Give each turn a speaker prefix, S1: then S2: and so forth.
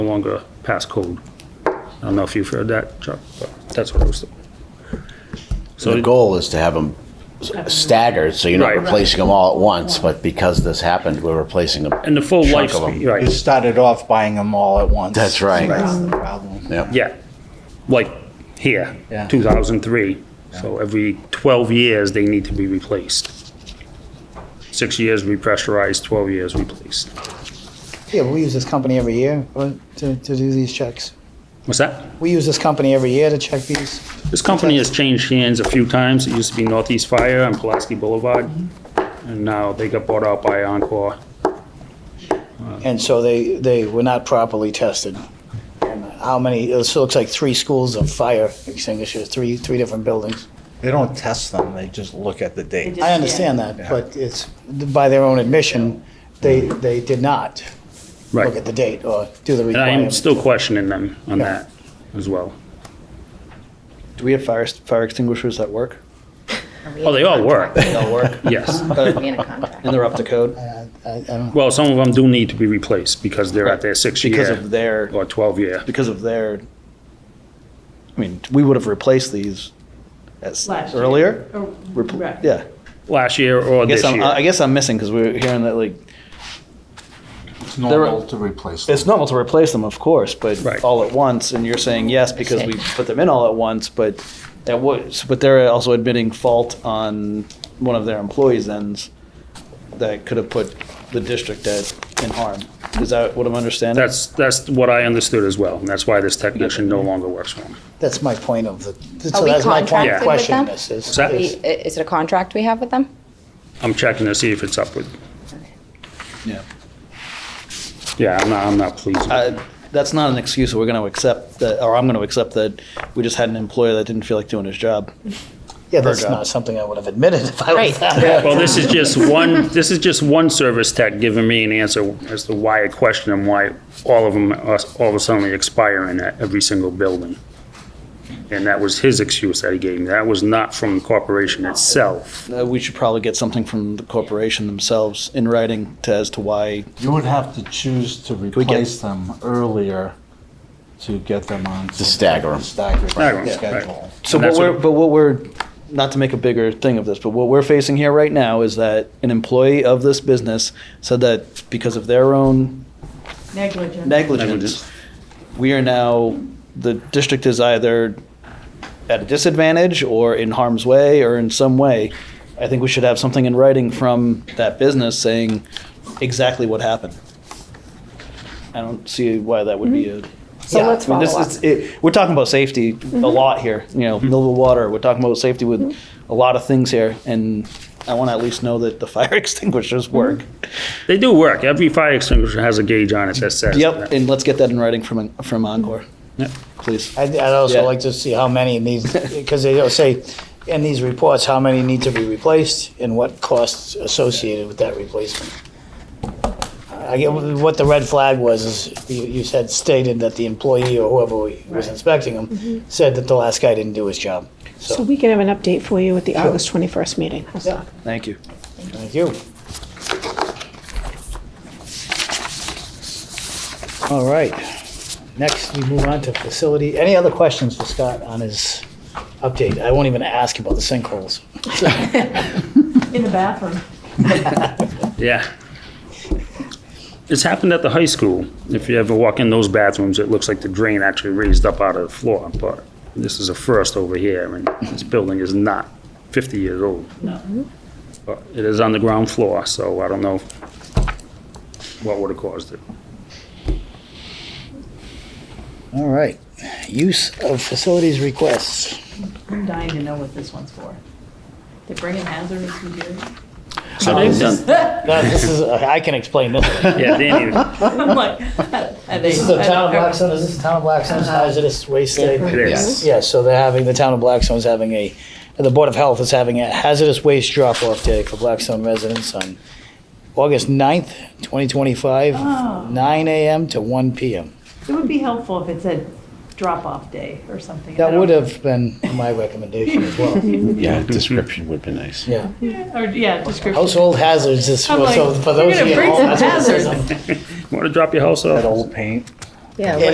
S1: no longer a passcode. I don't know if you've heard that, Chuck, but that's what I was.
S2: So the goal is to have them staggered, so you're not
S1: Right.
S2: replacing them all at once, but because this happened, we're replacing them.
S1: And the full
S2: Chunk
S1: life,
S2: of 'em.
S3: You
S1: right,
S3: started off buying them all at once.
S2: That's right.
S3: That's the problem.
S2: Yep.
S1: yeah, like here,
S3: Yeah.
S1: 2003. So every 12 years, they need to be replaced. Six years repressurized, 12 years replaced.
S4: Yeah, we use this company every year uh, to, to do these checks.
S1: What's that?
S4: We use this company every year to check these.
S1: This company has changed hands a few times. It used to be Northeast Fire on Pulaski Boulevard, and now they got bought out by Encore.
S4: And so they, they were not properly tested. And How many, it still looks like three schools of fire extinguishers, three, three different buildings.
S3: They don't test them, they just look at the date.
S4: I understand that, but it's, by their own admission, they, they did not look
S1: Right.
S4: at the date or do the
S1: And I am
S4: requirements.
S1: still questioning them on that as well.
S5: Do we have fire, fire extinguishers that work?
S1: Oh, they all work,
S5: They all work,
S1: yes.
S6: We in a contract.
S5: and they're up to code
S4: I- I don't-
S1: Well, some of them do need to be replaced because they're at their six
S5: because
S1: year
S5: of their,
S1: or 12 year.
S5: because of their, I mean, we would have replaced these as
S7: Last year.
S5: earlier.
S7: Or-
S5: Repl-
S7: Oh, right.
S5: Yeah.
S1: Last year or
S5: I
S1: this
S5: guess I'm, I
S1: year.
S5: guess I'm missing because we were hearing that like,
S3: It's
S5: normal
S3: to replace
S5: it's normal to replace them, of course, but
S1: Right.
S5: all at once. And you're saying yes because we put them in all at once, but that was, but they're also admitting fault on one of their employees' ends that could have put the district at, in harm. Is that what I'm understanding?
S1: That's, that's what I understood as well, and that's why this technician no longer works for them.
S4: That's my point of the,
S6: Are
S4: so
S6: we
S4: that's my point
S6: contracted
S4: of
S6: with
S4: questioning
S6: them?
S4: this. is-
S1: that-
S6: We-
S4: is-
S6: i- Is it a contract we have with them?
S1: I'm checking to see if it's up with,
S5: Yeah.
S1: yeah, I'm not, I'm not pleased. with it.
S5: Uh, that's not an excuse. We're going to accept that, or I'm going to accept that we just had an employer that didn't feel like doing his job.
S4: Yeah, that's
S5: Virgo.
S4: not something I would have admitted if I was that.
S1: Well, this is just one, this is just one service tech giving me an answer as to why I question them, why all of them are all of a sudden expiring at every single building. And that was his excuse that he gave me. That was not from the corporation itself.
S5: Uh, we should probably get something from the corporation themselves in writing to, as to why.
S3: You would have to choose to
S5: we get-
S3: replace them earlier to get them on. To
S2: stagger 'em.
S1: Stagger 'em,
S3: Stagger
S1: right.
S3: schedule.
S5: So
S1: And
S5: what
S1: that's
S5: we're,
S1: what-
S5: but what we're, not to make a bigger thing of this, but what we're facing here right now is that an employee of this business said that because of their own
S7: Negligent.
S5: negligence, we are now, the district is either at a disadvantage or in harm's way or in some way. I think we should have something in writing from that business saying exactly what happened. I don't see why that would be a.
S6: Mm-hmm. So let's
S5: I mean, this
S6: follow
S5: is-
S6: up. Mm-hmm.
S5: it- We're talking about safety a lot here, you know, Millville Water, we're talking about safety with
S6: Mm-hmm.
S5: a lot of things here. And I want to at least know that the fire extinguishers work.
S1: They do work. Every fire extinguisher has a gauge on it that says.
S5: Yep, and let's get that in writing from, from Encore,
S1: Yep.
S5: please.
S4: I'd, I'd also
S5: Yeah.
S4: like to see how many needs, because they don't say in these reports how many need to be replaced and what costs associated with that replacement. I get what the red flag was is you, you said stated that the employee or whoever was inspecting them said that the last guy didn't do his job.
S8: So we can have an update for you at the August 21st meeting. How's that?
S5: Thank you.
S4: Thank you. All right. Next, we move on to facility. Any other questions for Scott on his update? I won't even ask about the sinkholes.
S7: In the bathroom.
S1: Yeah. It's happened at the high school. If you ever walk in those bathrooms, it looks like the drain actually raised up out of the floor, but this is a first over here, and this building is not 50 years old. But it is on the ground floor, so I don't know what would have caused it.
S4: All right. Use of facilities requests.
S7: I'm dying to know what this one's for. They're bringing hazardous materials.
S1: So they've done,
S4: No, this is, I can explain this.
S1: yeah, Danny,
S7: I'm like, are they?
S4: This is the town of Blackstone, is this the town of Blackstone's hazardous waste
S1: it
S4: day?
S1: is.
S4: Yeah, so they're having, the town of Blackstone's having a, the Board of Health is having a hazardous waste drop-off day for Blackstone residents on August 9th, 2025,
S7: Oh.
S4: 9 AM to 1 PM.
S7: It would be helpful if it said drop-off day or something. I
S4: That
S7: don't-
S4: would have been my recommendation as well,
S2: Yeah, description would be nice.
S4: yeah.
S7: Yeah, Or, yeah, description.
S4: Household hazards is,
S7: I'm like,
S4: so for
S7: we're
S4: those of
S7: gonna
S4: you at
S7: bring
S4: home,
S7: some
S4: that's what it says
S7: hazards.
S4: on
S1: Want to drop your house off?
S3: paint.
S9: Yeah.
S6: Yeah,